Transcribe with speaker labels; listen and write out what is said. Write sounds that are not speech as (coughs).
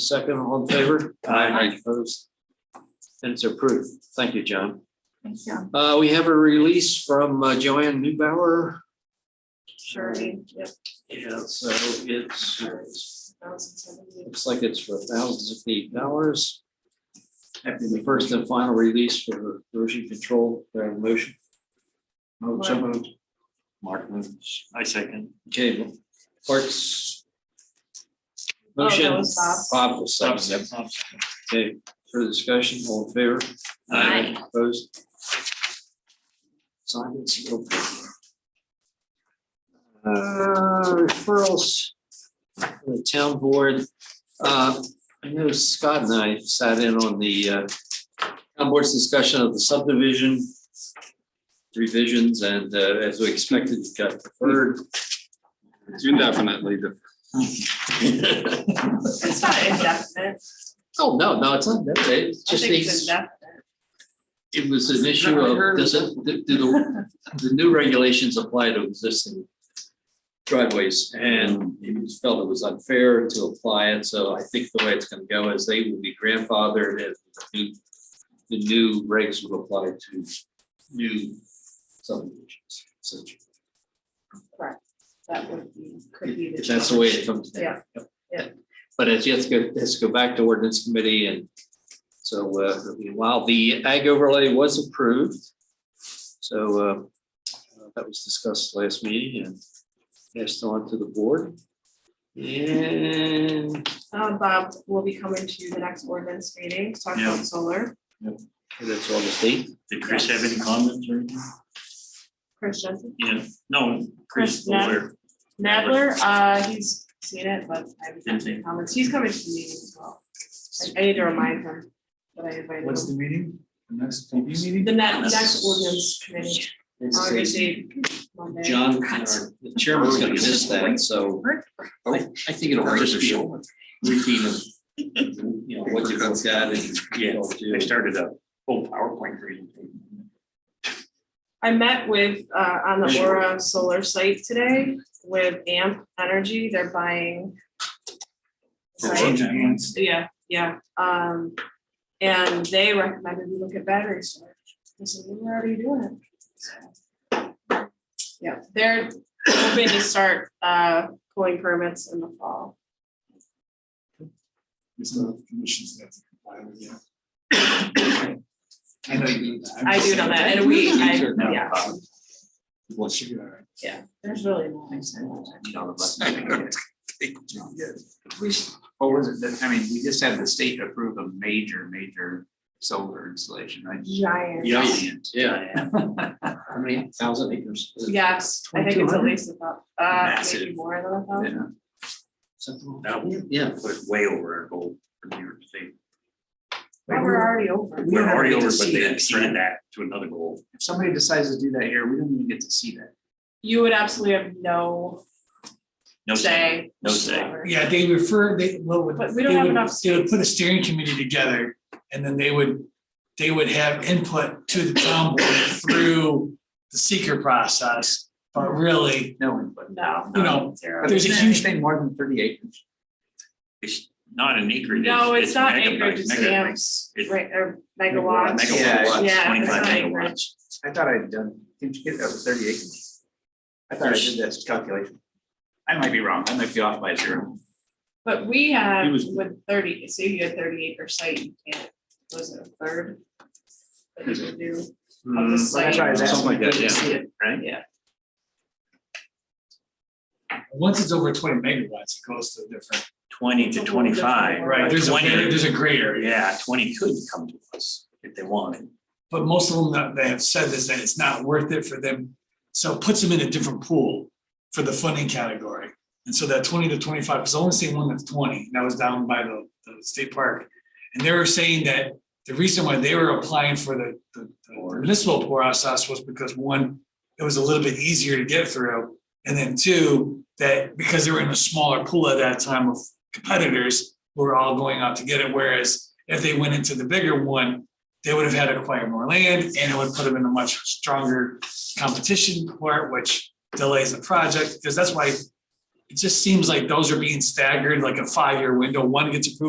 Speaker 1: Second, all in favor?
Speaker 2: Aye.
Speaker 1: Opposed? And it's approved. Thank you, John.
Speaker 3: Thank you.
Speaker 1: Uh, we have a release from uh, Joanne Newbauer.
Speaker 3: Sure. Yep.
Speaker 1: Yeah, so it's,
Speaker 3: Thousand seventy.
Speaker 1: looks like it's for thousands of eight dollars. After the first and final release for erosion control, there are motion. Oh,
Speaker 3: Mark.
Speaker 1: so moved. Mark moves.
Speaker 2: I second.
Speaker 1: Okay, Parks.
Speaker 3: Oh, that
Speaker 1: Motion.
Speaker 3: was Bob's.
Speaker 1: Bob will second. it. Okay, further discussion, all in favor?
Speaker 2: Uh,
Speaker 3: Aye.
Speaker 1: Opposed? Silence. okay. Uh, referrals. to The town board, uh, I know Scott and I sat in on the, uh, town board's discussion of the subdivision. Revisions and, uh, as we expected, it got deferred.
Speaker 4: It's indefinitely. def-
Speaker 3: It's not indefinite.
Speaker 1: (laughs) Oh, no, no, it's not, that day. it's
Speaker 3: I
Speaker 1: just
Speaker 3: think it's
Speaker 1: these,
Speaker 3: indefinite.
Speaker 1: it was an issue of, does it, do do the, the new regulations apply to existing driveways, and it was felt it was unfair to apply it, so I think the way it's gonna go is they will be grandfathered and the new, the new regs will apply to new subdivisions, essentially.
Speaker 3: That would be, could be.
Speaker 1: If that's the way it comes down.
Speaker 3: Yeah,
Speaker 1: Yep.
Speaker 3: yeah.
Speaker 1: But it's yet to go, it has to go back to ordinance committee and so uh, while the ag overlay was approved. So uh, that was discussed last meeting and passed on to the board. And
Speaker 3: Um, Bob will be coming to the next ordinance meeting to talk
Speaker 2: Yeah.
Speaker 3: about solar.
Speaker 1: that's all the state.
Speaker 2: Did Chris have any comments or anything?
Speaker 3: Chris Jensen,
Speaker 2: Yeah, no, Chris
Speaker 3: Chris, no.
Speaker 2: Fuller.
Speaker 3: Nadler, uh, he's seen it, but I haven't had any comments. He's coming to the meeting as well. I- I need to remind him that I invited
Speaker 5: What's
Speaker 3: him.
Speaker 5: the meeting? The next TV meeting?
Speaker 3: The next, next ordinance committee, obviously, Monday.
Speaker 1: John, our the chairman's gonna miss that, so I I think it'll just be a routine of, you know, what you've looked at and.
Speaker 2: Yeah, they started a whole PowerPoint presentation.
Speaker 3: I met with, uh, on the
Speaker 2: Sure.
Speaker 3: Aura Solar site today with AMP Energy, they're buying.
Speaker 2: Aura?
Speaker 3: site.
Speaker 5: Change of hands.
Speaker 3: Yeah, yeah, um, and they recommended we look at battery storage. I said, "Well, we're already doing it. So, Yeah, they're hoping to start, uh, pulling permits in the fall.
Speaker 5: There's no conditions that comply with (coughs) yet. I know you do that.
Speaker 3: I do know that, and we, I,
Speaker 5: No.
Speaker 3: yeah,
Speaker 5: Well, should be all right.
Speaker 3: there's really no.
Speaker 6: (laughs) We, s- what was it, that- I mean, we just had the state approve a major, major solar installation, right?
Speaker 3: Giant.
Speaker 2: Yeah.
Speaker 6: Giant.
Speaker 1: Yeah. How many thousand acres?
Speaker 3: Yes, I think it's at
Speaker 5: 2200?
Speaker 3: least about, uh, maybe
Speaker 6: Massive.
Speaker 3: more than a
Speaker 6: Yeah.
Speaker 3: thousand.
Speaker 1: Something like
Speaker 2: That
Speaker 1: that. Yeah.
Speaker 2: was way over our goal for New York State.
Speaker 3: Well, We're already over.
Speaker 2: We're already over, but
Speaker 6: See
Speaker 2: they
Speaker 6: that,
Speaker 2: extended that to another goal.
Speaker 6: If somebody decides to do that here, we don't even get to see that.
Speaker 3: You would absolutely have no
Speaker 2: No say,
Speaker 3: say.
Speaker 2: no say.
Speaker 3: whatsoever.
Speaker 5: Yeah, they refer, they, well, would-
Speaker 3: But we
Speaker 5: they
Speaker 3: don't have
Speaker 5: would,
Speaker 3: enough
Speaker 5: they would put a steering committee together and then they would, they would have input to the town board through the seeker process. But really,
Speaker 6: No one, but.
Speaker 3: No.
Speaker 5: you know,
Speaker 3: Zero.
Speaker 6: But
Speaker 5: There's a
Speaker 6: isn't
Speaker 5: huge-
Speaker 6: anything more than thirty acres.
Speaker 2: It's not an acreage.
Speaker 3: No, it's not
Speaker 2: megabyte-
Speaker 3: acreage, it's
Speaker 2: mega-
Speaker 3: amps,
Speaker 2: it's
Speaker 3: right, or
Speaker 2: Megawatt,
Speaker 3: megawatts.
Speaker 6: Yeah,
Speaker 2: Megawatts,
Speaker 3: yeah,
Speaker 2: twenty-five
Speaker 3: it's not
Speaker 2: megawatts.
Speaker 6: I thought I'd done, did you get over thirty acres? I thought I did that calculation. I might be wrong, I might be off by zero.
Speaker 3: But we have
Speaker 2: It was-
Speaker 3: with thirty, so you had thirty acre site, you can't, was it a third? That you would do of the
Speaker 2: Mm,
Speaker 6: That's why I
Speaker 3: site,
Speaker 6: was asking.
Speaker 1: Something like that,
Speaker 6: did you
Speaker 1: yeah.
Speaker 6: see it?
Speaker 2: Right?
Speaker 5: once it's over twenty megawatts, it goes to a different.
Speaker 2: Twenty to
Speaker 3: It's a whole different
Speaker 2: twenty-five.
Speaker 3: world.
Speaker 2: or
Speaker 3: Right,
Speaker 5: There's a,
Speaker 2: 20
Speaker 5: gray- there's a gray area.
Speaker 2: Yeah, twenty could come to us if they wanted.
Speaker 5: But most of them that they have said is that it's not worth it for them, so it puts them in a different pool for the funding category. And so that twenty to twenty-five, because I only seen one that's twenty, and that was down by the, the state park. And they were saying that the reason why they were applying for the, the the municipal process was because one, it was a little bit easier to get through. And then two, that because they were in a smaller pool at that time of competitors, who were all going out to get it, whereas if they went into the bigger one, they would have had to acquire more land and it would put them in a much stronger competition court, which delays the project, because that's why it just seems like those are being staggered like a five-year window, one gets approved